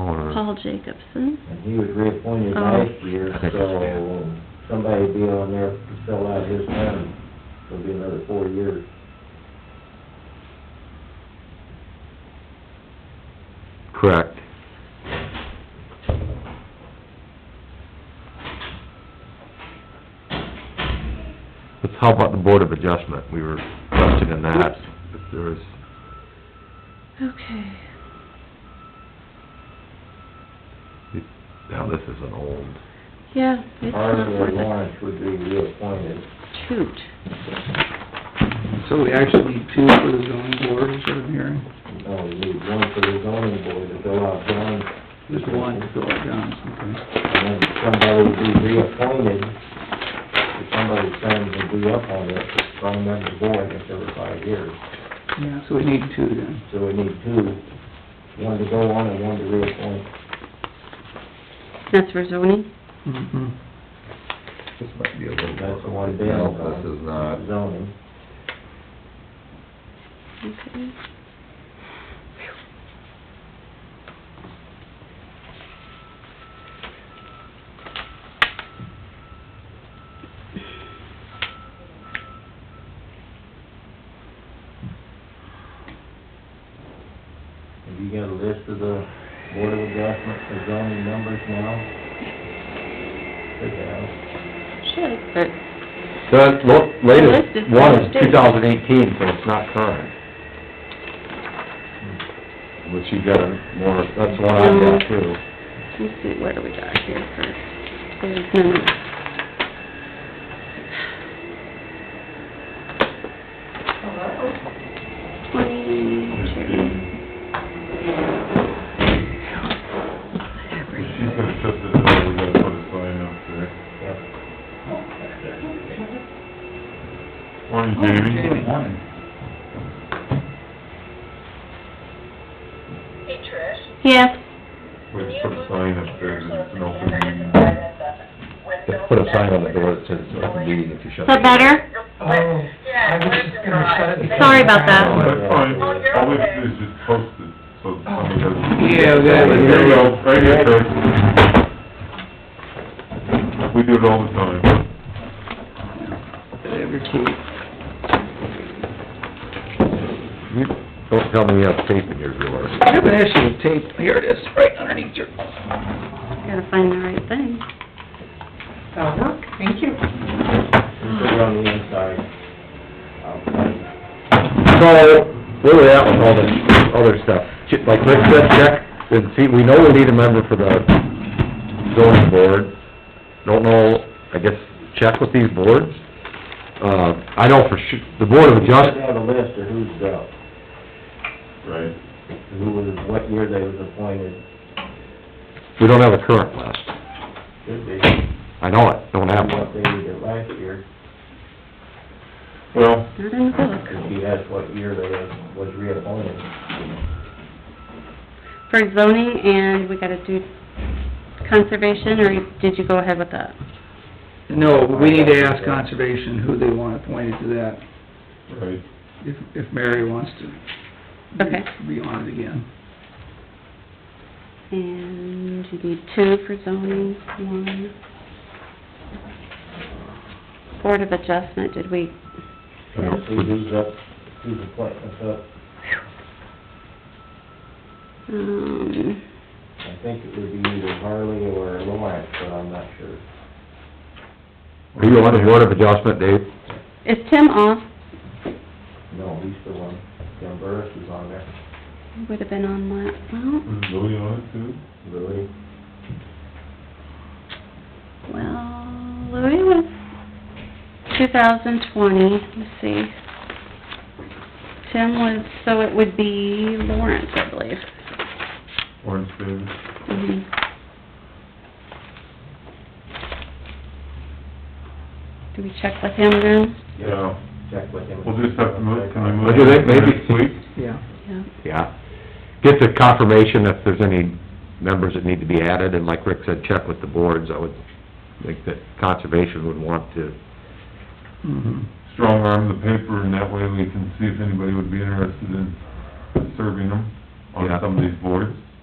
Paul Jacobson. And he was reappointed Oh. last year, Okay. so somebody be on there to fill out his term. It'll be another four years. Correct. Let's, how about the Board of Adjustment? We were questioning that, if there was, Okay. now this is an old, Yeah, it's not Arthur worth it. Lawrence would be reappointed. Shoot. So we actually need two for the zoning board instead of hearing, No, we need one for the zoning board to fill out John's. just one to fill out John's, okay? And then somebody be reappointed, if somebody's term would be up on it, from the board if there were five years. Yeah, so we need two then. So we need two, one to go on and one to reappoint. That's for zoning? Mm-hmm. this might be a little... That's the one Dan's No, on. this is not. Zoning. Okay. Have you got a list of the board of adjustment, the zoning numbers now? Should have. Should, but, The lo- latest List is one is upstairs. two thousand eighteen, so it's not current. Which you got a more, that's one I got too. let's see, what do we got here first? There's none. Twenty-two. She's gonna shut this down, we gotta put a sign up there. Morning, Jamie. Morning. Hey, Trish, Yes, We can you just put a move sign the up there, computer so it's it's an the open camera meeting. isn't right at the window? Just put a sign on the door that says it's an open meeting if you shut it. is that better? Yeah, where's the garage? Sorry about that. Oh, That's fine, Oh, you're all we okay. do is just post it, so somebody doesn't. Yeah, we got it. There we go, right here, Trish. We do it all the time. Every two. You Don't tell me you have tape in your drawer. I have an issue with tape, here it is, right underneath your... Gotta find the right thing. Put it on the inside, outside. So, where we at with all this other stuff? Ch- Like Rick said, check and see, we know we need a member for the zoning board. Don't know, I guess, check with these boards. Uh, I know for su, the Board of You should Adjustment, have a list of who's up, Right. who was, what year they was appointed, we don't have a current list. should be, I know it, don't have what one. they did last year. Well, Not in the book. If you ask what year they was reappointed. For zoning and we gotta do conservation, or did you go ahead with that? No, we need to ask conservation who they want appointed to that, right, if, if Mary wants to Okay. be on it again. And you need two for zoning, one. Board of Adjustment, did we, And see who's up, who's appointments up. um, I think it would be either Harley or Lawrence, but I'm not sure. Are you on the Board of Adjustment, Dave? is Tim off? No, he's the one, Jim Burris is on there. He Would have been on that, is Lily on it too? Really? well, well, Louis was two thousand twenty, let's see. Tim was, so it would be Lawrence, I believe. Orange baby? Mhm. Do we check with him then? Yeah, Check with him. we'll just have to move, can I move? What do you think, maybe? Next week? Yeah. Yeah. Yeah. Get the confirmation if there's any members that need to be added, and like Rick said, check with the boards. I would think that Conservation would want to, Mm-hmm. strong arm the paper, and that way we can see if anybody would be interested in serving them on Yeah. some of these boards.